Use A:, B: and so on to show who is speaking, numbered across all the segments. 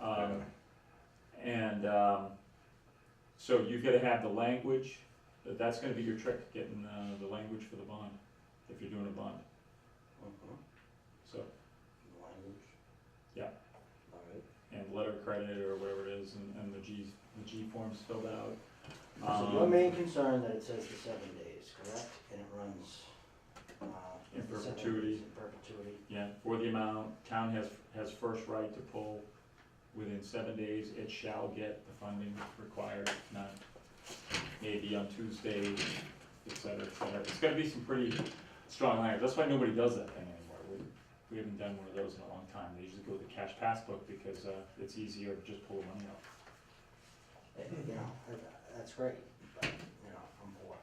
A: Um, And, um, so you've gotta have the language, that- that's gonna be your trick, getting, uh, the language for the bond, if you're doing a bond,
B: Mhm.
A: so,
B: Language.
A: Yeah.
B: Alright.
A: and letter of credit or whatever it is, and, and the G's, the G forms filled out.
B: So
A: Um,
B: your main concern that it says the seven days, correct? And it runs, uh.
A: In
B: the seven
A: perpetuity.
B: days In perpetuity.
A: Yeah, for the amount, town has, has first right to pull within seven days, it shall get the funding required, if not maybe on Tuesday, et cetera, et cetera. It's gonna be some pretty strong language, that's why nobody does that thing anymore. We, we haven't done one of those in a long time, they usually go with the cash passbook because, uh, it's easier to just pull the money out.
B: Eh, You know, that- that's great, but, you know, I'm poor.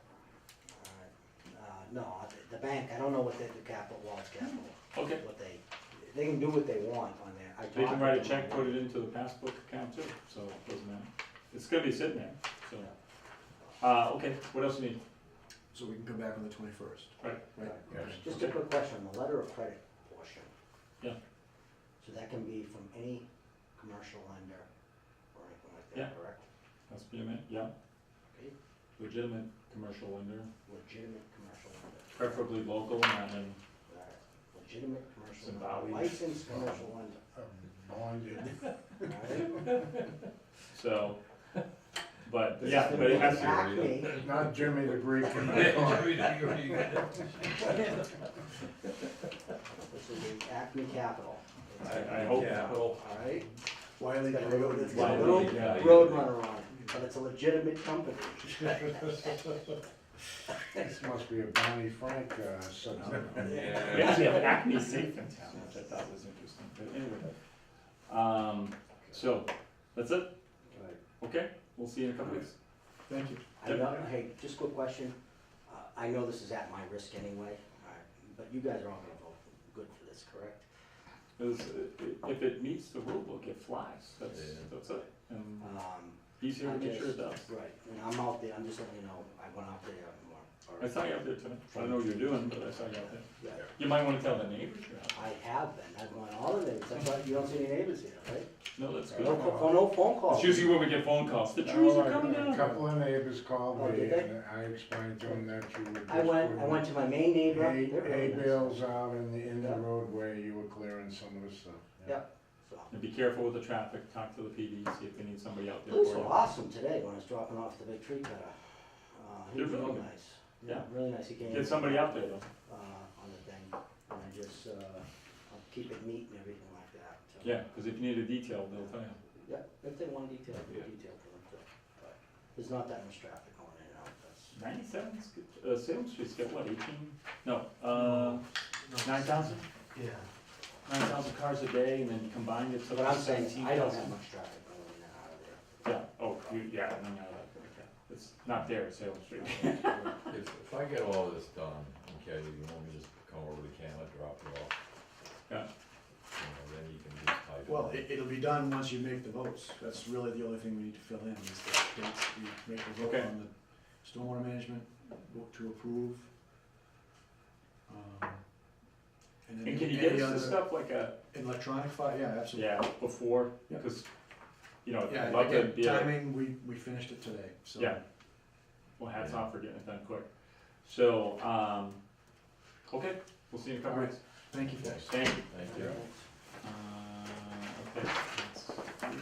B: Alright. Uh, no, I- the bank, I don't know what they do capital, Wall's capital,
A: Okay,
B: what they, they can do what they want on there. I
A: they
B: talked
A: can
B: to
A: write a
B: them
A: check, put
B: already.
A: it into the passbook account too, so it doesn't matter. It's gonna be sitting there, so. Uh, okay, what else you need?
C: So we can come back on the twenty-first.
A: Right.
C: Right?
D: Yes.
B: Just a quick question, the letter of credit portion.
A: Yeah.
B: So that can be from any commercial lender or anything like that, correct?
A: That's BMA, yeah.
B: Okay.
A: legitimate commercial lender,
B: Legitimate commercial lender.
A: preferably local, not in,
B: Alright. Legitimate commercial
A: Zimbabwe.
B: lender, licensed commercial lender, alright?
A: so, but,
C: This
A: yeah,
C: is
A: but it has to,
B: Acme,
C: Not Jimmy the Greek.
B: this is the Acme Capital. It's-
A: I, I hope so.
B: Alright?
C: Wiley
B: It's got a little,
C: Coyote.
B: it's got a
A: Wiley,
B: little
A: yeah.
B: roadrunner on it, but it's a legitimate company.
C: This must be a Bonnie Frank, uh,
A: We actually have Acme Safe in town, which I thought was interesting, but anyway. Um, so, that's it, okay, we'll see you in a couple weeks.
C: Thank you.
B: I know, hey, just quick question, uh, I know this is at my risk anyway, alright, but you guys are all gonna vote good for this, correct?
A: 'Cause i- i- if it meets the rule book, it flies, that's,
D: Yeah.
A: that's it, and
B: Um,
A: easier
B: I
A: to make sure it
B: just-
A: does.
B: Right, and I'm out there, I'm just letting you know, I went out there and more.
A: I saw you out there tonight, I don't know what you're doing, but I saw you out there.
B: Yeah,
A: You might wanna tell the neighbors you're out,
B: I have been, I've gone all the names, that's why you don't see any neighbors here, right?
A: no, that's
B: No,
A: good.
B: co- no phone calls.
A: It's usually when we get phone calls, the trees are coming
C: A
A: down.
C: couple of neighbors called
B: Oh,
C: me
B: did they?
C: and I explained to them that you were just.
B: I went, I went to my main neighbor. they're very
C: A,
B: nice.
C: bales out in the, in the
B: Yeah.
C: roadway, you were clearing some of the stuff.
B: Yeah. So,
A: And be careful with the traffic, talk to the PD, see if they need somebody out there
B: Police
A: for
B: were
A: you.
B: awesome today when I was dropping off the big tree cutter. Uh, he
A: They're
B: was
A: really
B: real
A: good.
B: nice.
A: Yeah.
B: Really nice, he came.
A: Get somebody out there though.
B: Uh, on the thing, and I just, uh, I'll keep it neat and everything like that, so.
A: Yeah, because if you need a detail, they'll tell you.
B: Yeah, if they want detail, I'll do
D: Yeah.
B: detail for them, too. but there's not that much traffic going in and out, that's.
A: Ninety-seven's, good- uh, Salem Street's got what, eighteen? No, uh, nine thousand?
C: Yeah.
A: Nine thousand cars a day and then combined it's
B: So what I'm
A: about
B: saying, is
A: seventeen
B: I don't have
A: thousand.
B: much traffic going in and out of there.
A: Yeah, oh, you, yeah, no, no, no, okay. It's not there, Salem Street.
D: If, if I get all this done, okay, you want me to just come over to Cam, I drop it off?
A: Yeah.
D: You know, then you can just type it.
E: Well,
D: up.
E: it, it'll be done once you make the votes, that's really the only thing we need to fill in, is the dates, we make the vote
A: Okay.
E: on the stormwater management, vote to approve. Um, And
A: And
E: then
A: can you
E: any
A: get us the
E: other
A: stuff like a,
E: electronic file, yeah, absolutely.
A: yeah, before,
E: Yeah.
A: because, you know, I'd
E: Yeah,
A: love to
E: again,
A: be, able-
E: timing, we, we finished it today, so.
A: Yeah. well, hats off for getting it done quick. So, um, okay, we'll see you in a couple
E: Alright.
A: weeks.
E: Thank you, folks.
A: Thank you.
D: Thank you.
A: Uh, okay, that's,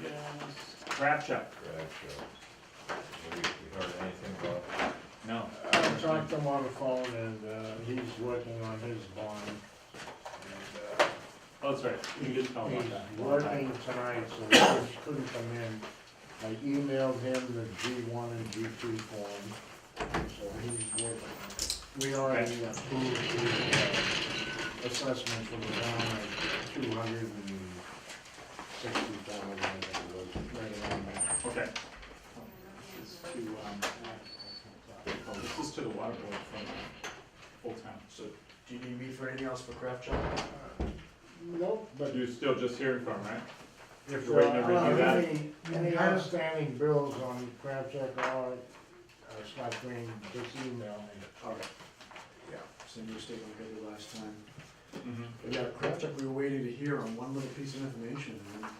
A: yes, crab shop,
D: Right, so, have you- you heard anything about,
A: no,
C: I talked to him Uh, on the phone and, uh, he's working on his bond. And, uh,
A: oh, that's right, you did tell me about that.
C: He's working tonight, so he just couldn't come in. I emailed him the G one and G two form, so he's working. We already approved the uh, assessment for the town at two hundred and sixty thousand, I think it was, right around that.
A: Okay. This is to, um, oh, this is to the water board from Old Town.
E: So, do you need me for anything else for craft shop?
C: Nope, but
A: But you're still just hearing from, right?
C: if
A: You're waiting to
C: there are
A: review that?
C: any, any outstanding bills on Crab Shack or, uh, Scott Green, just email me.
E: Alright. Yeah, send you a statement like I did last time.
A: Mm-hmm.
E: But Yeah, craft shop, we were waiting to hear on one little piece of information, and